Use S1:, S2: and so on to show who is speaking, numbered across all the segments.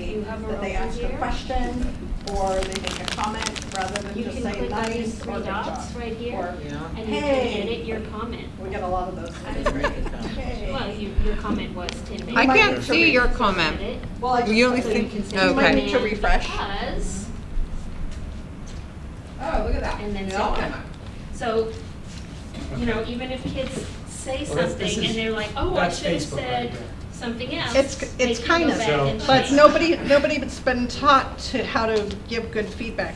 S1: cover
S2: that they
S1: over
S2: ask a
S1: here.
S2: question or they make a comment rather than
S1: You
S2: just
S1: can
S2: say
S1: click on these
S2: nice or
S1: three
S2: good
S1: dots
S2: job.
S1: right
S2: Or,
S1: here,
S3: Yeah.
S1: and you
S2: Hey.
S1: can edit your comment.
S2: we get a lot of those.
S1: I-
S2: Hey.
S1: Well, you, your comment was ten minutes.
S4: I
S2: might
S4: can't
S2: need to
S4: see your
S1: So
S4: comment.
S1: edit,
S2: Well, I
S4: You only
S1: so you
S2: just,
S4: think-
S1: can say
S4: okay.
S2: might need to
S1: and
S2: refresh.
S1: Because,
S2: oh, look at that.
S1: and then
S2: It
S1: so
S2: all
S1: on.
S2: came out.
S1: So, you know, even if kids say
S5: Well, that's- this
S1: something and
S5: is-
S1: they're like, oh, I
S5: that's
S1: should have
S5: Facebook right
S1: said
S5: there.
S1: something else.
S2: It's-
S1: they
S2: it's
S1: can
S2: kind
S1: go
S2: of-
S1: back and
S5: So-
S2: But
S1: change.
S2: nobody, nobody's been taught to how to give good feedback.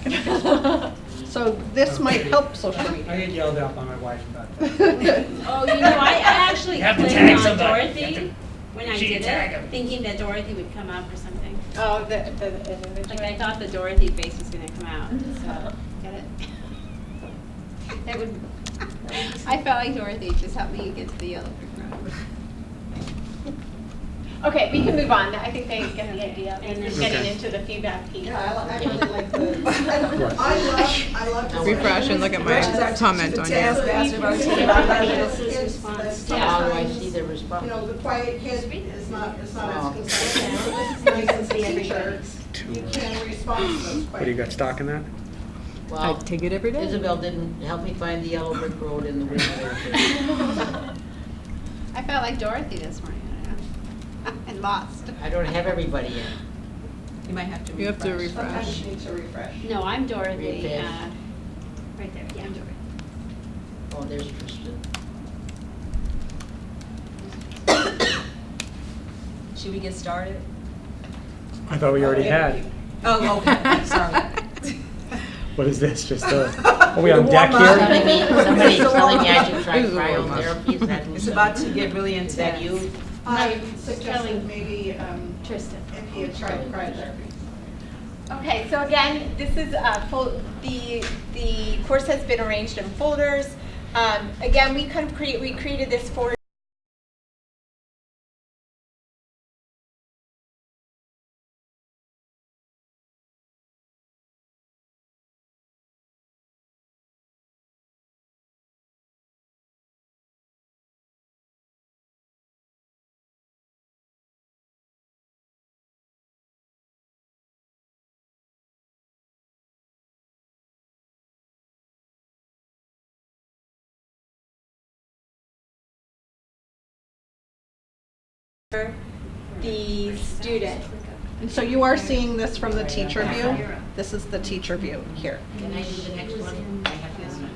S2: So this might help social
S5: I
S2: media.
S5: get yelled at by my wife about that.
S1: Oh, you know, I I actually
S5: You have to
S1: clicked
S5: tag
S1: on
S5: somebody. You have
S1: Dorothy
S5: to-
S1: when I
S5: she can
S1: did
S5: tag 'em.
S1: it, thinking that Dorothy would come up or something.
S2: Oh, the, the
S1: Like, I thought the Dorothy face was gonna come out, so, get it? That would, I felt like Dorothy, just help me get to the yellow brick road.
S6: Okay, we can move on. I think they get the idea.
S1: Okay.
S6: It's getting
S5: Okay.
S6: into the feedback piece.
S2: Yeah, I li- I really like the, I love, I love. to-
S4: Refresh and look at my comment on here.
S1: Yeah.
S7: Oh, I see the response.
S2: You know, the quiet kid is not, is not as concerned,
S7: Oh.
S2: this is nice as a teacher, you can respond to those
S3: What, do you got
S2: questions.
S5: stock in that?
S4: I
S7: Well,
S4: take it every day.
S7: Isabel didn't help me find the yellow brick road in the winter.
S1: I felt like Dorothy this morning, I don't know. and lost.
S7: I don't have everybody yet.
S8: You might have to refresh.
S4: You have to
S2: Sometimes
S4: refresh.
S2: you need to refresh.
S1: No, I'm Dorothy,
S7: Refresh.
S1: uh, right there, yeah, I'm Dorothy.
S7: Oh, there's Tristan.
S8: Should we get started?
S5: I thought we already had.
S8: Oh, okay, sorry.
S5: What is this, just a, are we on deck
S7: Somebody
S5: here?
S7: somebody's telling me I should try
S4: This is a warm up.
S7: cryotherapy, is that who
S8: It's
S7: said
S8: about
S7: it?
S8: to get really
S7: Is
S8: intense.
S7: that you?
S2: I suggested maybe, um,
S1: Tristan.
S2: if he had tried cryotherapy.
S6: Okay, so again, this is, uh, fol- the, the course has been arranged in folders. Um, Again, we kind of create, we created this for the student.
S2: And so you are seeing this from the teacher view, this is the teacher view here.
S7: Can I do the next one? I have this one.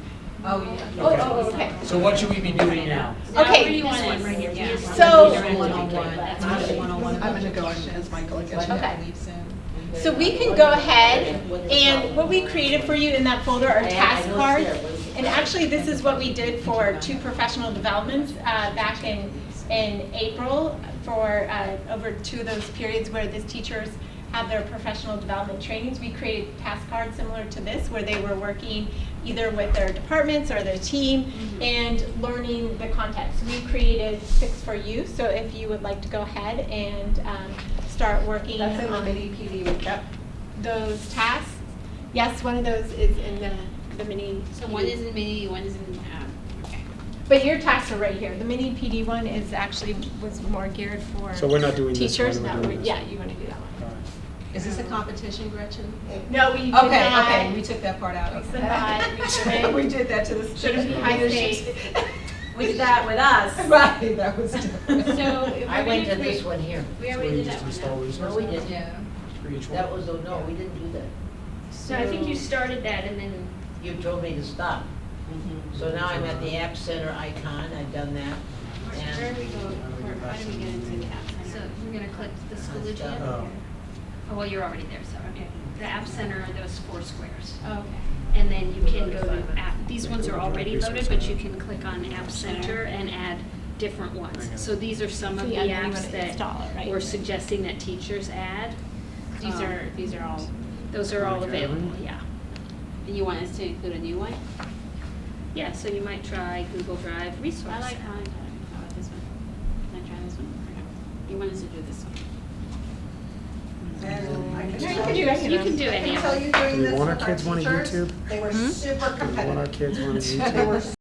S6: Oh, oh, okay.
S5: So what should we be doing now?
S6: Okay.
S1: Now, where do you want it? Right here. Yeah.
S6: So-
S7: oh
S8: One-on-one,
S1: That's
S8: not a
S1: what-
S8: one-on-one.
S2: I'm gonna go in as Michael again.
S6: Okay.
S8: Leaves in.
S6: So we can go ahead and what we created for you in that folder are task cards. And actually, this is what we did for two professional developments uh, back in, in April for, uh, over two of those periods where the teachers have their professional development trainings. We created task cards similar to this where they were working either with their departments or their team
S2: Mm-hmm.
S6: and learning the context. We created six for you, so if you would like to go ahead and um, start working
S2: That's in the
S6: on
S2: mini PD we kept.
S6: those tasks. Yes, one of those is in the, the mini.
S1: So one is in mini, one is in, um, okay.
S6: But your tasks are right here. The mini PD one is actually, was more geared for
S5: So we're not doing this one,
S6: teachers.
S5: we're
S6: No,
S5: doing this
S6: Yeah, you want to do that one.
S5: All right.
S8: Is this a competition, Gretchen?
S6: No, we did not.
S8: Okay, okay, we took that part out.
S6: We
S8: okay.
S6: said that, we shouldn't.
S8: We did that to the.
S6: Shouldn't be high stakes.
S8: We did that with us. Right, that was different.
S1: So if
S7: I
S1: we're
S7: went to
S1: gonna
S7: this
S1: create-
S7: one here.
S1: We
S5: So
S1: already
S5: we
S1: did
S5: just
S1: that one.
S5: install
S1: though.
S5: these
S7: No,
S5: ones
S7: we didn't.
S8: Yeah.
S5: for each
S7: That
S5: one?
S7: was, oh, no, we didn't do that.
S1: So I think you started that and then,
S7: You told me to stop. So now I'm at the App Center icon, I've done that.
S1: where
S7: And-
S1: where do we go, where, how do we get into the app center? So we're gonna click the
S7: Schoology app?
S5: Oh.
S1: Oh, well, you're already there, so, okay. The app center are those four squares.
S6: Okay.
S1: And then you can go to app, these ones are already loaded, but you can click on app center and add different ones. So these are some of the
S6: Yeah, and then you
S1: apps
S6: want to
S1: that
S6: install it, right?
S1: we're suggesting that teachers add.
S6: These
S1: Um,
S6: are, these are all.
S1: Those are all
S5: Okay.
S1: available, yeah. And you want us to include a new one? Yeah, so you might try Google Drive resource. I like How about this one? Can I try this one? You want us to do this one?
S2: And I can
S6: Yeah, you
S2: tell
S6: could
S2: you.
S1: You can do
S6: do any
S2: I
S1: it,
S2: can
S1: yeah.
S2: tell you doing
S5: Do we
S2: this
S5: want our
S2: with our
S5: kids wanting
S2: teachers,
S6: Hmm?
S5: YouTube?
S2: they were super
S5: Do we want our
S2: competitive.
S5: kids on
S2: They were
S5: YouTube?